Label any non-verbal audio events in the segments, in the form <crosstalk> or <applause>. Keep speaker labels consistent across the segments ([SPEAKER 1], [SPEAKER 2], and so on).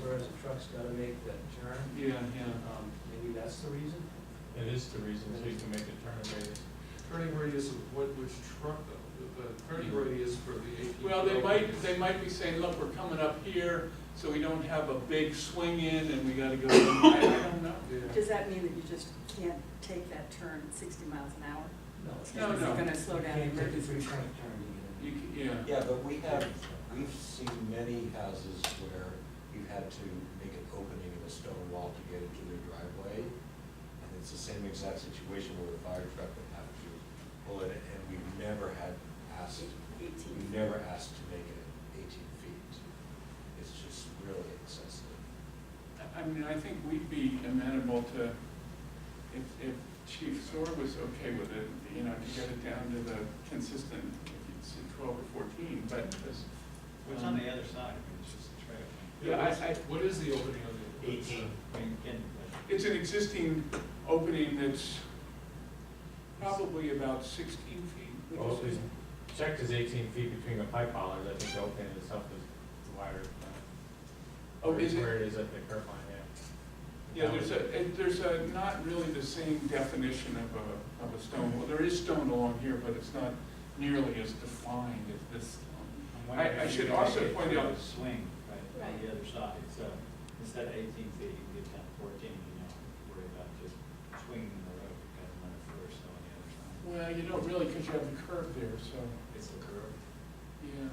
[SPEAKER 1] whereas a truck's gotta make that turn.
[SPEAKER 2] Yeah, yeah.
[SPEAKER 1] Um, Maybe that's the reason?
[SPEAKER 3] It is the reason, so you can make a turn radius.
[SPEAKER 2] Turning radius of what, which truck though? The turning radius for the eighteen.
[SPEAKER 4] Well, they might, they might be saying, look, we're coming up here, so we don't have a big swing in and we gotta go, <coughs> I I don't know.
[SPEAKER 2] Yeah.
[SPEAKER 5] Does that mean that you just can't take that turn at sixty miles an hour?
[SPEAKER 1] No. it's
[SPEAKER 4] No,
[SPEAKER 1] not.
[SPEAKER 4] no.
[SPEAKER 5] It's gonna slow down
[SPEAKER 1] You can't take a
[SPEAKER 5] emergency.
[SPEAKER 1] three-point turn to
[SPEAKER 4] You,
[SPEAKER 1] get in.
[SPEAKER 4] c- yeah.
[SPEAKER 6] Yeah, but we have, we've seen many houses where you had to make an opening in a stone wall to get into their driveway. And it's the same exact situation where the fire truck would have to pull it, and we never had asked, we
[SPEAKER 5] Eighteen.
[SPEAKER 6] never asked to make it eighteen feet. It's just really excessive.
[SPEAKER 4] I- I mean, I think we'd be amenable to, if, if Chief Sore was okay with it, you know, to get it down to the consistent, if it's twelve or fourteen, but this.
[SPEAKER 7] What's on the other side? I mean, it's just a trail.
[SPEAKER 4] Yeah, I, I,
[SPEAKER 2] What is the opening on the?
[SPEAKER 7] I mean, again, like,
[SPEAKER 4] it's an existing opening that's probably about sixteen feet.
[SPEAKER 7] Oh,
[SPEAKER 3] Well, if we checked is eighteen feet between the pipe hollers, I think the opening itself is wider than
[SPEAKER 4] Oh, is it?
[SPEAKER 3] Where it is at the curb line, yeah.
[SPEAKER 4] Yeah, there's a, and there's a, not really the same definition of a, of a stone wall. There is stone along here, but it's not nearly as defined as this.
[SPEAKER 7] I'm
[SPEAKER 4] I-
[SPEAKER 7] wondering
[SPEAKER 4] I
[SPEAKER 7] if
[SPEAKER 4] should
[SPEAKER 7] you could
[SPEAKER 4] also
[SPEAKER 7] make it
[SPEAKER 4] point
[SPEAKER 7] through
[SPEAKER 4] out-
[SPEAKER 7] the Swing, right,
[SPEAKER 5] Right.
[SPEAKER 7] on the other side, so instead of eighteen feet, you can get down to fourteen, you know, worry about just swinging the road, you got another foot or so on the other side.
[SPEAKER 4] Well, you don't really, because you have a curve there, so,
[SPEAKER 7] It's a curve.
[SPEAKER 4] yeah.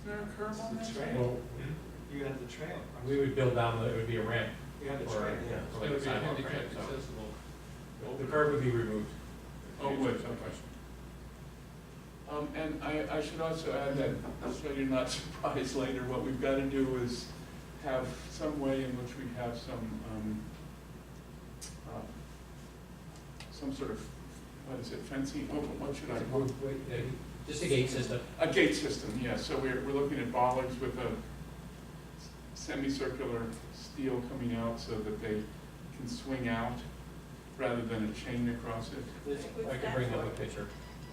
[SPEAKER 4] Is there a curve on that?
[SPEAKER 7] It's a trail.
[SPEAKER 3] Well, hmm?
[SPEAKER 7] You have the trail. across.
[SPEAKER 3] we would build down, the- it would be a ramp.
[SPEAKER 7] You have the
[SPEAKER 3] or-
[SPEAKER 7] trail.
[SPEAKER 6] Yeah.
[SPEAKER 3] or like a sidewalk ramp, so The curb would be removed.
[SPEAKER 4] Oh, would, okay. Um, and I, I should also add that, so you're not <laughs> surprised later, what we've got to do is have some way in which we have some, um, uh, some sort of, what is it, fencing, Oh, what should I call it?
[SPEAKER 1] Wait,
[SPEAKER 3] Yeah,
[SPEAKER 1] wait,
[SPEAKER 3] Just a gate system.
[SPEAKER 4] A gate system, yeah, so we're, we're looking at bollards with a semicircular steel coming out so that they can swing out rather than a chain across it.
[SPEAKER 3] I could bring up a picture.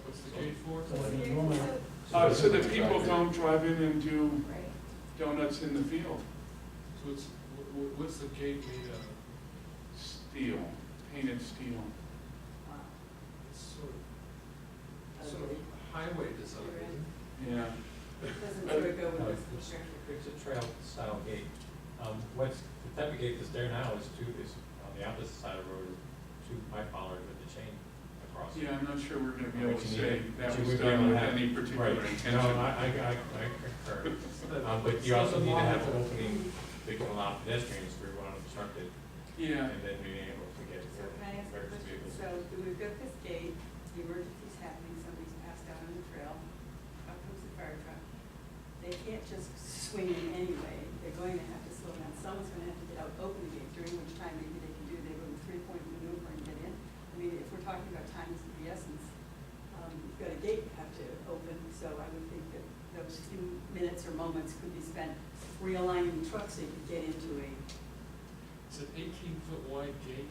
[SPEAKER 2] What's the gate for?
[SPEAKER 1] So when you roll it-
[SPEAKER 4] Uh, so that people don't drive in and do
[SPEAKER 5] Right.
[SPEAKER 4] donuts in the field.
[SPEAKER 2] So it's, wh- wh- what's the gate made of?
[SPEAKER 4] Steel, painted steel.
[SPEAKER 5] Wow.
[SPEAKER 2] It's sort of, sort of highway design, isn't it?
[SPEAKER 4] Yeah.
[SPEAKER 5] Doesn't sort of go
[SPEAKER 3] No,
[SPEAKER 5] with
[SPEAKER 3] it's-
[SPEAKER 5] this picture.
[SPEAKER 3] It's a trail style gate. Um, what's, the type of gate that's there now is two, is on the opposite side of the road, is two pipe hollers with a chain across. it.
[SPEAKER 4] Yeah, I'm not sure we're gonna be able
[SPEAKER 3] Which
[SPEAKER 4] to
[SPEAKER 3] you
[SPEAKER 4] say
[SPEAKER 3] need-
[SPEAKER 4] that
[SPEAKER 3] which
[SPEAKER 4] was
[SPEAKER 3] you would be
[SPEAKER 4] done
[SPEAKER 3] able to
[SPEAKER 4] with
[SPEAKER 3] have.
[SPEAKER 4] any particular
[SPEAKER 3] Right.
[SPEAKER 4] intention.
[SPEAKER 3] No, I, I, I I
[SPEAKER 4] <laughs>
[SPEAKER 3] concur. Um, but you also need to have an opening that can allow pedestrians through unobstructed,
[SPEAKER 4] Yeah,
[SPEAKER 3] and then being able to get
[SPEAKER 5] So can I ask a
[SPEAKER 3] emergency
[SPEAKER 5] question?
[SPEAKER 3] vehicles.
[SPEAKER 5] So we've got this gate, the emergency's happening, somebody's passed out on the trail, up comes the fire truck. They can't just swing in anyway, they're going to have to slow down, someone's gonna have to get out, open the gate, during which time maybe they can do their little three-point maneuver and get in. I mean, if we're talking about times of the essence, um, you've got a gate you have to open, so I would think that those few minutes or moments could be spent realigning trucks so you could get into a
[SPEAKER 2] It's an eighteen foot wide gate.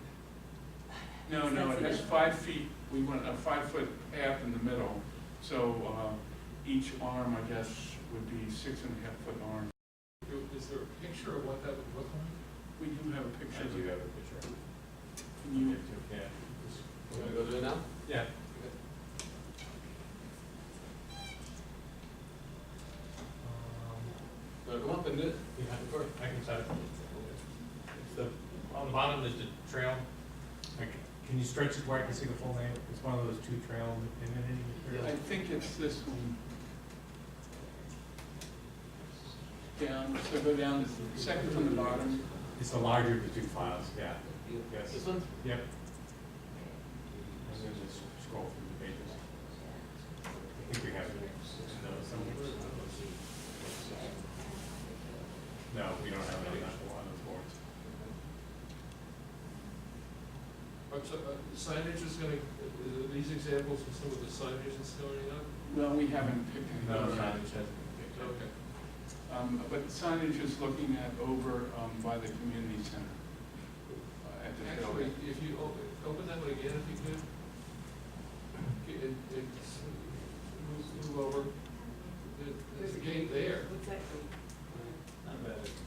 [SPEAKER 4] no, no, it has five feet, we want a five-foot path in the middle. So, uh, each arm, I guess, would be six and a half foot arm.
[SPEAKER 2] I- Is there a picture of what that would look like?
[SPEAKER 4] We do have a
[SPEAKER 3] I
[SPEAKER 4] picture of
[SPEAKER 3] do
[SPEAKER 4] it.
[SPEAKER 3] have a picture.
[SPEAKER 4] Can you-
[SPEAKER 3] Yeah.
[SPEAKER 2] You wanna go do it now?
[SPEAKER 3] Yeah. Um,
[SPEAKER 2] No, come up and do it.
[SPEAKER 3] Yeah, of course, I can try. It's the, on the bottom is the trail. Like, can you stretch it where I can see the full name? It's one of those two trail
[SPEAKER 4] I
[SPEAKER 3] imaging materials.
[SPEAKER 4] think it's this one. Down, so go down, to second from the bottom.
[SPEAKER 3] It's the larger of the two files, yeah. Yes.
[SPEAKER 2] This one?
[SPEAKER 3] Yep. I'm gonna just scroll through the pages. I think we have those. No, we don't have any on those boards.
[SPEAKER 2] Or so- uh, Signage is gonna, uh, are these examples of some of the signage that's going up?
[SPEAKER 4] Well, we haven't picked any
[SPEAKER 3] No,
[SPEAKER 4] of
[SPEAKER 3] no, it
[SPEAKER 4] those.
[SPEAKER 3] hasn't been picked up.
[SPEAKER 2] Okay.
[SPEAKER 4] Um, But signage is looking at over um, by the community center. uh, At the
[SPEAKER 2] Actually,
[SPEAKER 4] building.
[SPEAKER 2] if you open, open that one again, if you could. Okay, It, it's, move, move over. There- There's a gate there.
[SPEAKER 5] What's that?
[SPEAKER 7] Not But